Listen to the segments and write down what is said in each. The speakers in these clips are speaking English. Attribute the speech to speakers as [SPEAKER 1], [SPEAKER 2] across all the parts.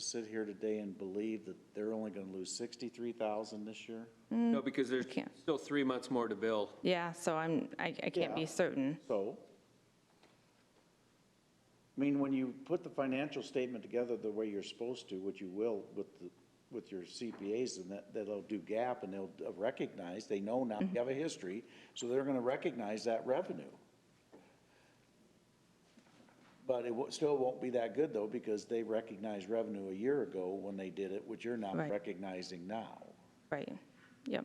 [SPEAKER 1] sit here today and believe that they're only going to lose 63,000 this year?
[SPEAKER 2] No, because there's
[SPEAKER 3] can't.
[SPEAKER 2] still three months more to bill.
[SPEAKER 3] Yeah, so I'm, I, I can't
[SPEAKER 1] Yeah.
[SPEAKER 3] be certain.
[SPEAKER 1] So? I mean, when you put the financial statement together the way you're supposed to, which you will with the, with your CPAs, and that, that'll do gap, and they'll recognize, they know now, you have a history, so they're gonna recognize that revenue. But it wo- still won't be that good, though, because they recognized revenue a year ago when they did it, which you're not
[SPEAKER 3] Right.
[SPEAKER 1] recognizing now.
[SPEAKER 3] Right, yep.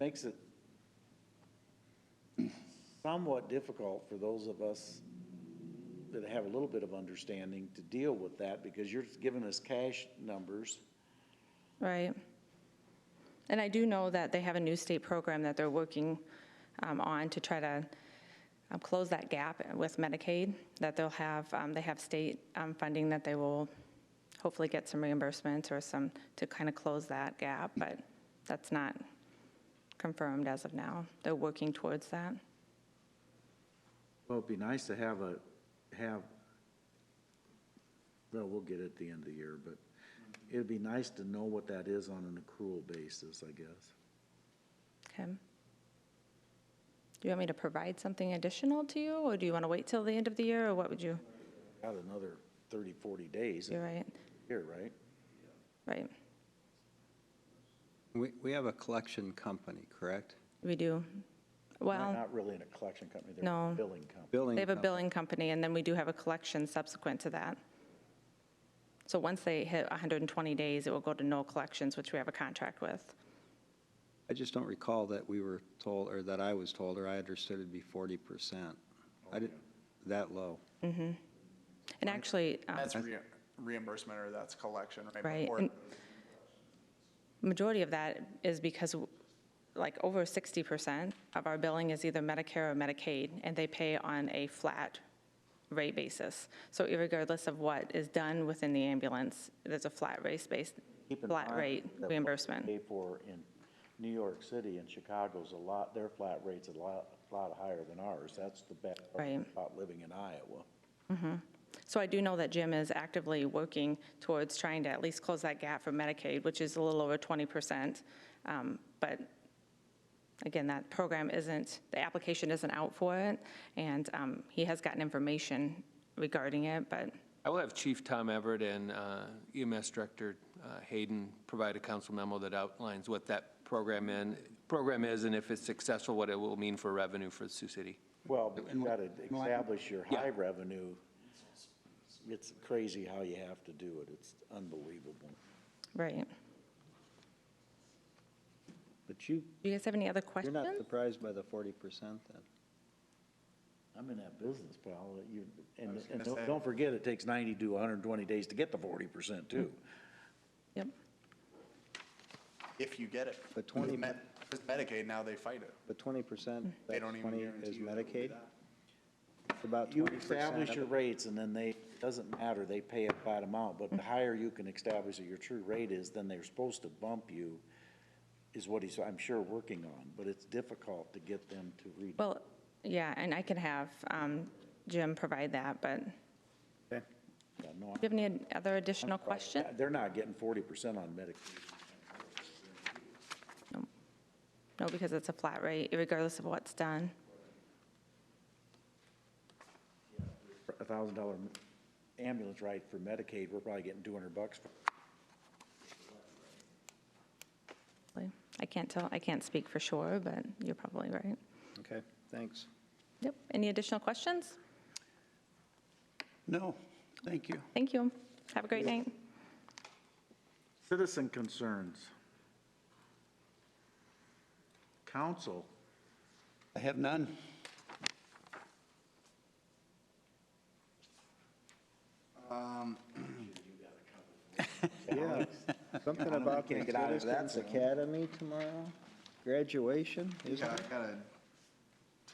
[SPEAKER 1] Makes it somewhat difficult for those of us that have a little bit of understanding to deal with that, because you're giving us cash numbers.
[SPEAKER 3] Right. And I do know that they have a new state program that they're working um, on to try to um, close that gap with Medicaid, that they'll have, um, they have state um, funding that they will hopefully get some reimbursements or some, to kind of close that gap, but that's not confirmed as of now. They're working towards that.
[SPEAKER 1] Well, it'd be nice to have a, have, well, we'll get it at the end of the year, but it'd be nice to know what that is on an accrual basis, I guess.
[SPEAKER 3] Okay. Do you want me to provide something additional to you, or do you want to wait till the end of the year, or what would you,
[SPEAKER 1] Got another 30, 40 days
[SPEAKER 3] you're right,
[SPEAKER 1] here, right?
[SPEAKER 3] right,
[SPEAKER 4] We, we have a collection company, correct?
[SPEAKER 3] we do. Well.
[SPEAKER 1] Not really in a collection company, they're
[SPEAKER 3] No.
[SPEAKER 1] a billing company.
[SPEAKER 4] Billing.
[SPEAKER 3] They have a
[SPEAKER 4] company.
[SPEAKER 3] billing company, and then we do have a collection subsequent to that. So once they hit 120 days, it will go to no collections, which we have a contract with.
[SPEAKER 4] I just don't recall that we were told, or that I was told, or I understood it'd be forty percent. I didn't, that low.
[SPEAKER 3] And actually, um,
[SPEAKER 5] That's rea- reimbursement or that's collection, right?
[SPEAKER 3] Right,
[SPEAKER 5] Or-
[SPEAKER 3] and- majority of that is because, like, over 60% of our billing is either Medicare or Medicaid, and they pay on a flat rate basis. So irregardless of what is done within the ambulance, there's a flat rate base,
[SPEAKER 1] Keep in
[SPEAKER 3] flat
[SPEAKER 1] mind
[SPEAKER 3] rate
[SPEAKER 1] that what we
[SPEAKER 3] reimbursement.
[SPEAKER 1] Pay for in New York City and Chicago's a lot, their flat rate's a lot, lot higher than ours. That's the bad part
[SPEAKER 3] Right.
[SPEAKER 1] about living in Iowa.
[SPEAKER 3] So I do know that Jim is actively working towards trying to at least close that gap for Medicaid, which is a little over 20%. Um, But again, that program isn't, the application isn't out for it, and um, he has gotten information regarding it, but,
[SPEAKER 2] I will have Chief Tom Everett and uh, EMS Director uh, Hayden provide a council memo that outlines what that program in, program is, and if it's successful, what it will mean for revenue for Sioux City.
[SPEAKER 1] Well, but you gotta establish your high revenue. It's crazy how you have to do it. It's unbelievable.
[SPEAKER 3] right.
[SPEAKER 4] But you,
[SPEAKER 3] Do you guys have any other
[SPEAKER 4] you're not
[SPEAKER 3] questions?
[SPEAKER 4] surprised by the forty percent then?
[SPEAKER 1] I'm in that business, pal. You, and,
[SPEAKER 5] was
[SPEAKER 1] and
[SPEAKER 5] gonna
[SPEAKER 1] don't,
[SPEAKER 5] say.
[SPEAKER 1] don't forget, it takes ninety to hundred and twenty days to get the forty percent too.
[SPEAKER 3] Yep,
[SPEAKER 5] If you get it.
[SPEAKER 4] But 20
[SPEAKER 5] With Med- with Medicaid, now they fight it.
[SPEAKER 4] But twenty
[SPEAKER 3] Hmm.
[SPEAKER 4] percent,
[SPEAKER 5] They
[SPEAKER 4] that's
[SPEAKER 5] don't even
[SPEAKER 4] twenty
[SPEAKER 5] guarantee
[SPEAKER 4] is
[SPEAKER 5] you that we'll do
[SPEAKER 4] Medicaid?
[SPEAKER 5] that.
[SPEAKER 4] It's About
[SPEAKER 1] You
[SPEAKER 4] twenty
[SPEAKER 1] establish your
[SPEAKER 4] percent.
[SPEAKER 1] rates, and then they, doesn't matter, they pay a flat amount, but
[SPEAKER 4] Mm.
[SPEAKER 1] the higher you can establish that your true rate is, then they're supposed to bump you, is what he's, I'm sure, working on, but it's difficult to get them to read.
[SPEAKER 3] well, yeah, and I can have um, Jim provide that, but do
[SPEAKER 1] that. No,
[SPEAKER 3] you have any other additional questions?
[SPEAKER 1] They're not getting forty percent on Medicaid.
[SPEAKER 3] No, because it's a flat rate, regardless of what's done.
[SPEAKER 1] For A thousand dollar ambulance ride for Medicaid, we're probably getting two hundred bucks.
[SPEAKER 3] I can't tell, I can't speak for sure, but you're probably right.
[SPEAKER 4] Okay, thanks.
[SPEAKER 3] Yep. Any additional questions?
[SPEAKER 6] No, thank you.
[SPEAKER 3] Thank you. Have a great night.
[SPEAKER 1] Citizen concerns. Council.
[SPEAKER 6] I have none.
[SPEAKER 4] Yeah, something about the
[SPEAKER 1] can't get out of that
[SPEAKER 4] Citizens Academy tomorrow, graduation, isn't
[SPEAKER 5] Yeah,
[SPEAKER 4] it?
[SPEAKER 5] I got a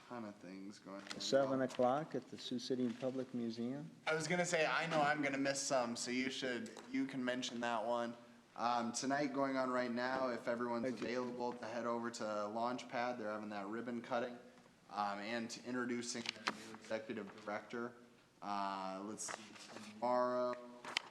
[SPEAKER 5] ton of things going on.
[SPEAKER 4] Seven o'clock at the Sioux City Public Museum.
[SPEAKER 5] I was gonna say, I know I'm gonna miss some, so you should, you can mention that one. Um, tonight going on right now, if everyone's available to head over to Launchpad, they're having that ribbon cutting. Um, and introducing their new executive director. Uh, let's see, tomorrow,